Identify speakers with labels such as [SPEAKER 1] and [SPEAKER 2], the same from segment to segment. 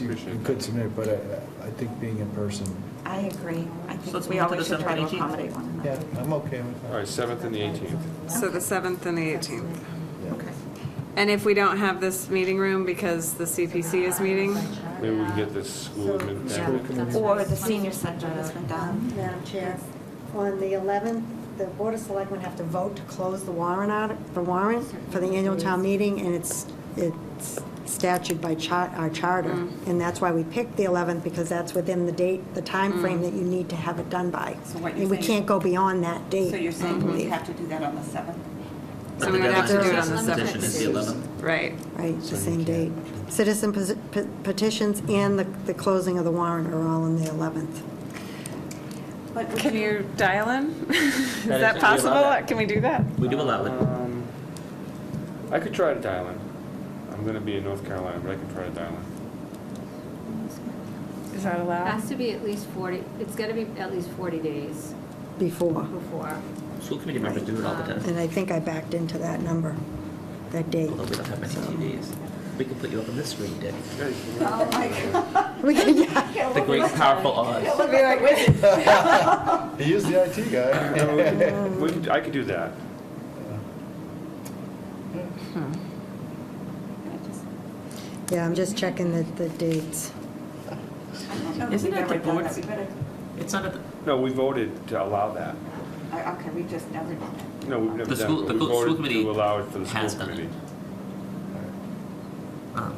[SPEAKER 1] You could submit, but uh, I, I think being in person,
[SPEAKER 2] I agree. I
[SPEAKER 3] So
[SPEAKER 2] think
[SPEAKER 3] let's
[SPEAKER 2] we
[SPEAKER 3] move to
[SPEAKER 2] always should
[SPEAKER 3] December
[SPEAKER 2] try to
[SPEAKER 3] 18th.
[SPEAKER 2] accommodate one
[SPEAKER 1] yeah,
[SPEAKER 2] another.
[SPEAKER 1] I'm okay with
[SPEAKER 4] All
[SPEAKER 1] that.
[SPEAKER 4] right, 7th and the 18th.
[SPEAKER 5] So the 7th and the 18th.
[SPEAKER 2] Okay.
[SPEAKER 5] And if we don't have this meeting room because the CPC is meeting,
[SPEAKER 4] Maybe we can get this school admin
[SPEAKER 1] School
[SPEAKER 4] down.
[SPEAKER 1] committee.
[SPEAKER 2] Or the senior center has been
[SPEAKER 6] Um,
[SPEAKER 2] done.
[SPEAKER 7] Madam Chair, on the 11th, the Board of Selectmen have to vote to close the warrant out, the warrant for the annual town meeting, and it's, it's statute by char, our charter.
[SPEAKER 6] Mm-hmm.
[SPEAKER 7] And that's why we picked the 11th, because that's within the date, the time frame that you need to have it done by.
[SPEAKER 6] Mm-hmm. So what you're
[SPEAKER 7] And we
[SPEAKER 6] saying-
[SPEAKER 7] can't go beyond that date.
[SPEAKER 6] So you're
[SPEAKER 7] I
[SPEAKER 6] saying we
[SPEAKER 2] Mm-hmm.
[SPEAKER 7] believe.
[SPEAKER 6] have to do that on the 7th?
[SPEAKER 5] so we would have to do it on the
[SPEAKER 8] Petition is
[SPEAKER 5] 7th.
[SPEAKER 8] the 11th.
[SPEAKER 5] Right.
[SPEAKER 7] Right, the same date. Citizen peti- pe- petitions and the, the closing of the warrant are all on the 11th.
[SPEAKER 6] But
[SPEAKER 5] Can you dial in? Is that
[SPEAKER 8] That is- we allow
[SPEAKER 5] possible?
[SPEAKER 8] that.
[SPEAKER 5] Can we do that?
[SPEAKER 8] We do allow it.
[SPEAKER 4] Um, I could try to dial in. I'm going to be in North Carolina, but I can try to dial in.
[SPEAKER 5] Is that allowed?
[SPEAKER 9] Has to be at least 40, it's got to be at least 40 days
[SPEAKER 7] Before.
[SPEAKER 9] before.
[SPEAKER 8] School committee members do it all the time,
[SPEAKER 7] And I think I backed into that number, that date.
[SPEAKER 8] although we don't have many TVs. We can put you up on this screen, Dick.
[SPEAKER 7] We can, yeah.
[SPEAKER 8] The great powerful Oz.
[SPEAKER 1] He is the IT guy.
[SPEAKER 4] We could- I could do that.
[SPEAKER 7] Yeah, I'm just checking the, the dates.
[SPEAKER 3] Isn't it the board's-
[SPEAKER 8] It's not at the,
[SPEAKER 4] No, we voted to allow that.
[SPEAKER 6] Okay, we just never did that.
[SPEAKER 4] No, we've never
[SPEAKER 8] The
[SPEAKER 4] done
[SPEAKER 8] school-
[SPEAKER 4] it.
[SPEAKER 8] the
[SPEAKER 4] but We
[SPEAKER 8] school
[SPEAKER 4] voted
[SPEAKER 8] committee
[SPEAKER 4] to allow it for the
[SPEAKER 8] has
[SPEAKER 4] school
[SPEAKER 8] done it.
[SPEAKER 4] committee.
[SPEAKER 8] um,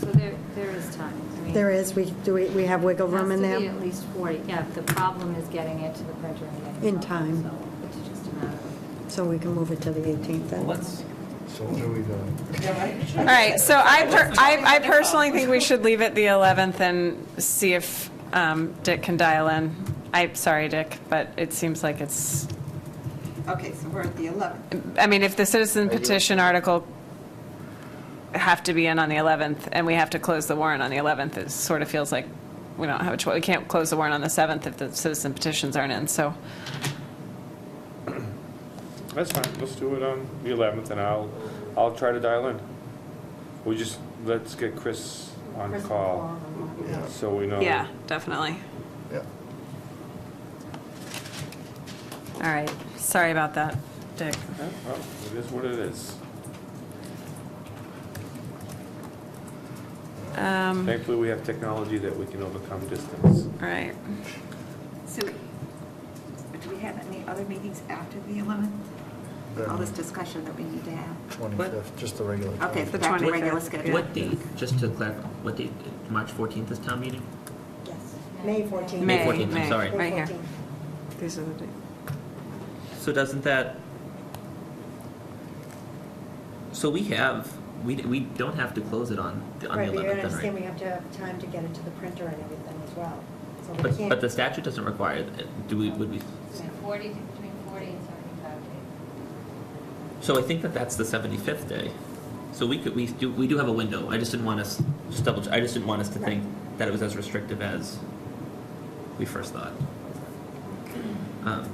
[SPEAKER 9] So there, there is time. I mean,
[SPEAKER 7] There is, we, do we, we have wiggle room in
[SPEAKER 9] Has to be
[SPEAKER 7] there?
[SPEAKER 9] at least 40, yeah. The problem is getting it to the printer and getting it
[SPEAKER 7] In
[SPEAKER 9] up,
[SPEAKER 7] time.
[SPEAKER 9] so It's just a matter of.
[SPEAKER 7] So we can move it to the 18th then?
[SPEAKER 8] let's,
[SPEAKER 1] So what are we doing?
[SPEAKER 5] All right, so I, per- I I personally think we should leave it the 11th and see if um, Dick can dial in. I'm sorry, Dick, but it seems like it's,
[SPEAKER 6] Okay, so we're at the 11th.
[SPEAKER 5] I mean, if the citizen petition article have to be in on the 11th, and we have to close the warrant on the 11th, it sort of feels like we don't have a choice. We can't close the warrant on the 7th if the citizen petitions aren't in, so.
[SPEAKER 4] That's fine, let's do it on the 11th, and I'll, I'll try to dial in. We just, let's get Chris on call,
[SPEAKER 1] Yeah,
[SPEAKER 4] so we know.
[SPEAKER 5] Yeah, definitely.
[SPEAKER 1] yeah.
[SPEAKER 5] All right, sorry about that, Dick.
[SPEAKER 4] Yeah, well, It is what it is.
[SPEAKER 5] Um, All
[SPEAKER 4] Thankfully, we have technology that we can overcome distance.
[SPEAKER 5] right.
[SPEAKER 6] So do we have any other meetings after the 11th? All this discussion that we need to have?
[SPEAKER 1] Twenty-fifth, just the regular.
[SPEAKER 6] Okay,
[SPEAKER 1] 25th.
[SPEAKER 6] so back to
[SPEAKER 5] 25th.
[SPEAKER 6] regular schedule.
[SPEAKER 8] what date, just to clarify, what date, March 14th is town meeting?
[SPEAKER 7] Yes, May 14th.
[SPEAKER 5] May,
[SPEAKER 8] 14th, I'm
[SPEAKER 5] May,
[SPEAKER 8] sorry.
[SPEAKER 5] Right here.
[SPEAKER 7] 14th.
[SPEAKER 5] These are the dates.
[SPEAKER 8] So doesn't that, so we have, we, we don't have to close it on, the- on the
[SPEAKER 7] Right, but you
[SPEAKER 8] 11th
[SPEAKER 7] understand
[SPEAKER 8] then,
[SPEAKER 7] we
[SPEAKER 8] right?
[SPEAKER 7] have to have time to get it to the printer and everything as well. So we
[SPEAKER 8] But,
[SPEAKER 7] can't-
[SPEAKER 8] but the statute doesn't require, it. do we, would we,
[SPEAKER 9] So 40, between 40 and 75 days.
[SPEAKER 8] so I think that that's the 75th day. So we could, we do, we do have a window. I just didn't want us, just double, I just didn't want us to think that it was as restrictive as we first thought. Um,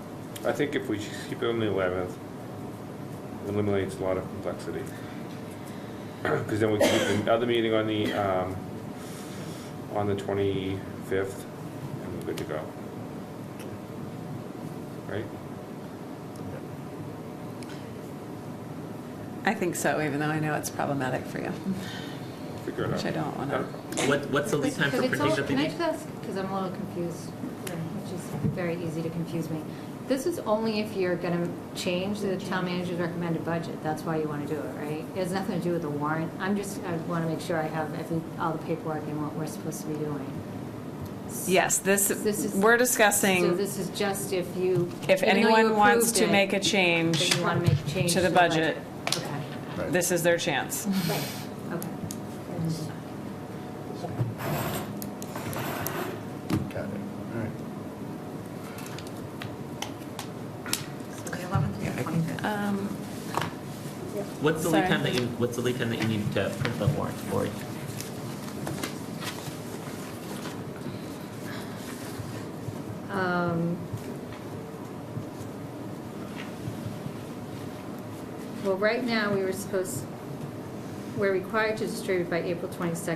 [SPEAKER 4] I think if we just keep it on the 11th, it eliminates a lot of complexity. Because then we can keep the other meeting on the, um, on the 25th, and we're good to go. Right?
[SPEAKER 5] I think so, even though I know it's problematic for you,
[SPEAKER 4] Figure it out.
[SPEAKER 5] which I don't want
[SPEAKER 4] Not a
[SPEAKER 5] to.
[SPEAKER 4] problem.
[SPEAKER 8] What, what's the lead time for
[SPEAKER 9] But it's
[SPEAKER 8] printing
[SPEAKER 9] all-
[SPEAKER 8] the
[SPEAKER 9] Can I
[SPEAKER 8] thing?
[SPEAKER 9] just ask, because I'm a little confused, um, which is very easy to confuse me. This is only if you're going to change the town manager's recommended budget. That's why you want to do it, right? It has nothing to do with the warrant. I'm just, I want to make sure I have every- all the paperwork and what we're supposed to be doing.
[SPEAKER 5] Yes,
[SPEAKER 9] This
[SPEAKER 5] this,
[SPEAKER 9] is-
[SPEAKER 5] we're
[SPEAKER 9] So
[SPEAKER 5] discussing
[SPEAKER 9] this is just if you.
[SPEAKER 5] if
[SPEAKER 9] even though you
[SPEAKER 5] anyone wants
[SPEAKER 9] approved
[SPEAKER 5] to
[SPEAKER 9] it,
[SPEAKER 5] make a change
[SPEAKER 9] That you want to make change.
[SPEAKER 5] to the budget,
[SPEAKER 9] Okay,
[SPEAKER 1] Right.
[SPEAKER 5] this is their chance.
[SPEAKER 9] okay.
[SPEAKER 1] Got it, all right.
[SPEAKER 6] So the 11th and the 25th.
[SPEAKER 5] Um,
[SPEAKER 8] What's the lead
[SPEAKER 5] Sorry.
[SPEAKER 8] time that you, what's the lead time that you need to print the warrant for?
[SPEAKER 9] Um, Well, right now, we were supposed, we're required to distribute by April 22nd